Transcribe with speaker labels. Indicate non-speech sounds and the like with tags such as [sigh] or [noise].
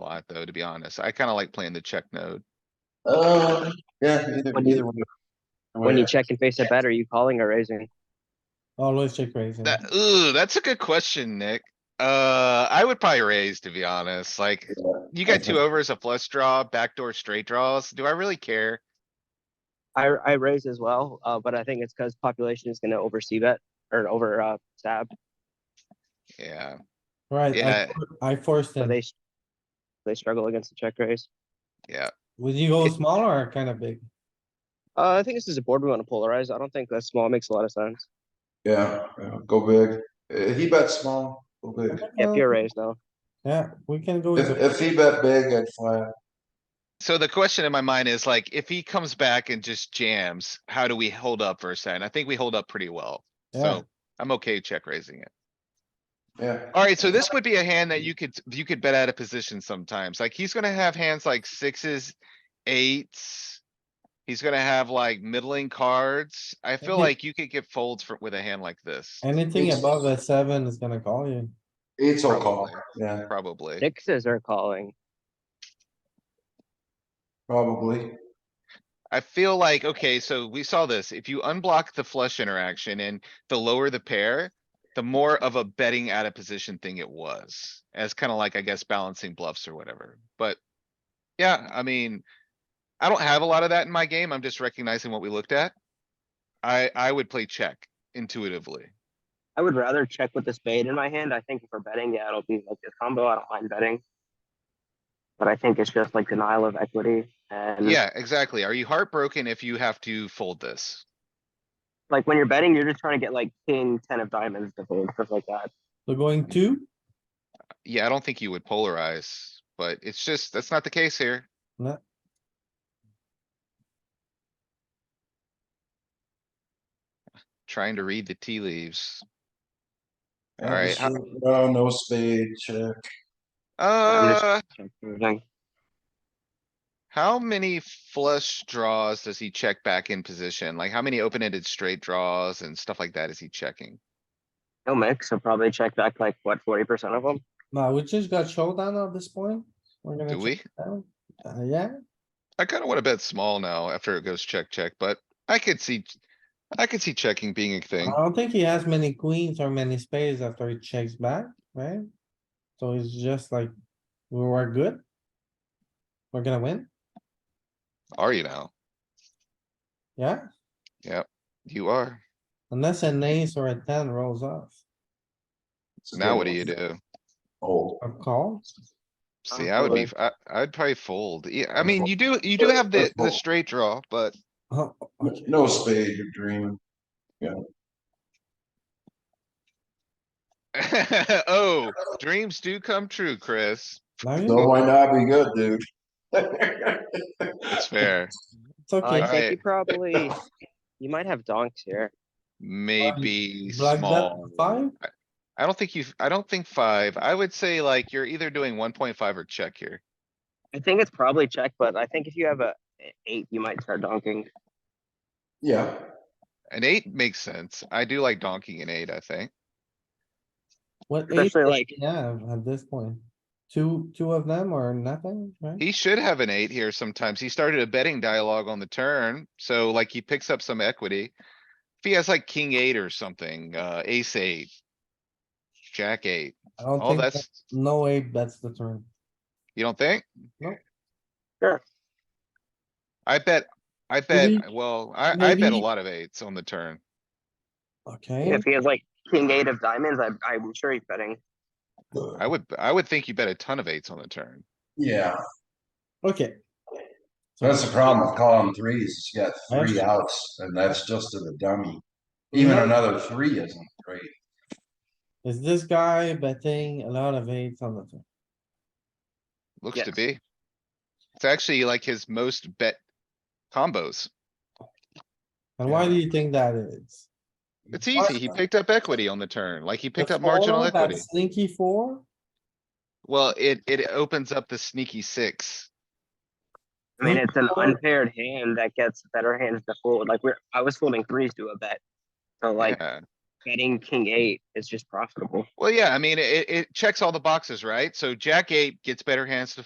Speaker 1: that though, to be honest. I kinda like playing the check node.
Speaker 2: Uh, yeah, either,
Speaker 3: When you-
Speaker 2: either one. Oh,
Speaker 3: When you check and face a bet, are you calling or raising?
Speaker 4: Always check raising.
Speaker 1: That, ooh, that's a good question, Nick. Uh, I would probably raise, to be honest. Like, you got two overs, a flush draw, backdoor straight draws. Do I really care?
Speaker 3: I, I raise as well, uh, but I think it's because population is gonna oversee bet or over, uh, stab,
Speaker 1: Yeah,
Speaker 4: Right, I
Speaker 1: yeah.
Speaker 4: for- I forced
Speaker 3: so
Speaker 4: it.
Speaker 3: they s- they struggle against the check raise.
Speaker 1: yeah.
Speaker 4: Would you go small or kind of big?
Speaker 3: Uh, I think this is a board we wanna polarize. I don't think that small makes a lot of sense.
Speaker 2: Yeah, yeah, go big. Uh, he bets small, go big.
Speaker 3: Yeah,
Speaker 4: Uh,
Speaker 3: pure raise now.
Speaker 4: Yeah, we can go with,
Speaker 2: If,
Speaker 4: the-
Speaker 2: if he bet big, I'd flat.
Speaker 1: So the question in my mind is like, if he comes back and just jams, how do we hold up versus that? And I think we hold up pretty well.
Speaker 4: yeah,
Speaker 1: So I'm okay check raising it.
Speaker 2: Yeah,
Speaker 1: Alright, so this would be a hand that you could, you could bet out of position sometimes. Like, he's gonna have hands like sixes, eights. He's gonna have like middling cards. I feel
Speaker 4: Mhm.
Speaker 1: like you could get folds for, with a hand like this,
Speaker 4: anything above a seven is gonna call you.
Speaker 2: eight's will call.
Speaker 1: Probably.
Speaker 2: Yeah,
Speaker 1: probably.
Speaker 3: Sixes are calling.
Speaker 2: probably.
Speaker 1: I feel like, okay, so we saw this. If you unblock the flush interaction and the lower the pair, the more of a betting out of position thing it was. As kind of like, I guess, balancing bluffs or whatever, but. Yeah, I mean, I don't have a lot of that in my game. I'm just recognizing what we looked at. I, I would play check intuitively.
Speaker 3: I would rather check with the spade in my hand. I think if we're betting, yeah, it'll be like a combo. I don't mind betting. But I think it's just like denial of equity and
Speaker 1: Yeah, exactly. Are you heartbroken if you have to fold this?
Speaker 3: like when you're betting, you're just trying to get like king, ten of diamonds to fold, stuff like that.
Speaker 4: So going two?
Speaker 1: Yeah, I don't think you would polarize, but it's just, that's not the case here.
Speaker 4: No.
Speaker 1: Trying to read the tea leaves.
Speaker 2: Yeah,
Speaker 1: Alright,
Speaker 2: just
Speaker 1: how-
Speaker 2: re- No, no spade, check.
Speaker 3: just-
Speaker 1: Uh,
Speaker 3: Check raising.
Speaker 1: how many flush draws does he check back in position? Like, how many open-ended straight draws and stuff like that is he checking?
Speaker 3: No mix, so probably check back like what, forty percent of them?
Speaker 4: No, we just got showdown at this point. We're gonna
Speaker 1: Do
Speaker 4: check
Speaker 1: we?
Speaker 4: down. Uh, yeah,
Speaker 1: I kinda wanna bet small now after it goes check, check, but I could see, I could see checking being a
Speaker 4: I
Speaker 1: thing.
Speaker 4: don't think he has many queens or many spades after he checks back, right? So it's just like, we were good. We're gonna win,
Speaker 1: Are you now?
Speaker 4: yeah,
Speaker 1: You are.
Speaker 4: unless an ace or a ten rolls off,
Speaker 2: It's a
Speaker 1: Now
Speaker 2: good
Speaker 1: what do
Speaker 2: one.
Speaker 1: you do?
Speaker 2: Old.
Speaker 4: a call.
Speaker 1: See, I would be, I, I'd probably fold. Yeah, I mean, you do, you do have the, the
Speaker 2: Fold.
Speaker 1: straight draw, but [laughs]
Speaker 4: Oh, okay.
Speaker 2: No spade, you're dreaming.
Speaker 1: oh, dreams do come true, Chris.
Speaker 4: Now you
Speaker 2: No,
Speaker 4: know,
Speaker 2: why not be good, dude? [laughs]
Speaker 1: It's fair.
Speaker 4: it's okay.
Speaker 3: I think you
Speaker 1: Alright.
Speaker 3: probably, you might have donks here.
Speaker 1: Maybe
Speaker 4: Black bet
Speaker 1: small.
Speaker 4: five,
Speaker 1: I don't think you've, I don't think five. I would say like you're either doing one point five or check here.
Speaker 3: I think it's probably check, but I think if you have a eight, you might start donking.
Speaker 2: Yeah,
Speaker 1: An eight makes sense. I do like donking an eight, I think.
Speaker 4: what ace?
Speaker 3: Especially like,
Speaker 4: Yeah, at this point, two, two of them or nothing, right?
Speaker 1: He should have an eight here sometimes. He started a betting dialogue on the turn, so like he picks up some equity. If he has like king eight or something, uh, ace eight. Jack eight.
Speaker 4: I don't
Speaker 1: Oh,
Speaker 4: think, that-
Speaker 1: that's,
Speaker 4: no way, that's the turn.
Speaker 1: you don't think?
Speaker 4: No.
Speaker 3: Sure.
Speaker 1: I bet, I bet,
Speaker 4: Maybe-
Speaker 1: well, I, I bet a
Speaker 4: maybe-
Speaker 1: lot of eights on the turn.
Speaker 4: Okay,
Speaker 3: if he has like king eight of diamonds, I, I'm sure he's betting.
Speaker 1: I would, I would think you bet a ton of eights on the turn.
Speaker 2: yeah,
Speaker 4: okay. So-
Speaker 2: that's the problem with calling threes, you got three
Speaker 4: Actually-
Speaker 2: outs, and that's just to the dummy. Even
Speaker 4: Yeah.
Speaker 2: another three isn't great.
Speaker 4: Is this guy betting a lot of eights on the turn?
Speaker 1: Looks to
Speaker 3: Yes.
Speaker 1: be. It's actually like his most bet combos.
Speaker 4: And why do you think that is?
Speaker 1: It's easy. He picked up equity on the turn, like he picked
Speaker 4: The
Speaker 1: up marginal
Speaker 4: four, that
Speaker 1: equity.
Speaker 4: Sneaky four,
Speaker 1: Well, it, it opens up the sneaky six.
Speaker 3: I mean, it's an
Speaker 4: Well-
Speaker 3: unpaired hand that gets better hands to fold. Like we're, I was folding threes to a bet. So like
Speaker 1: Yeah.
Speaker 3: betting king eight is just profitable.
Speaker 1: Well, yeah, I mean, it, it checks all the boxes, right? So jack eight gets better hands to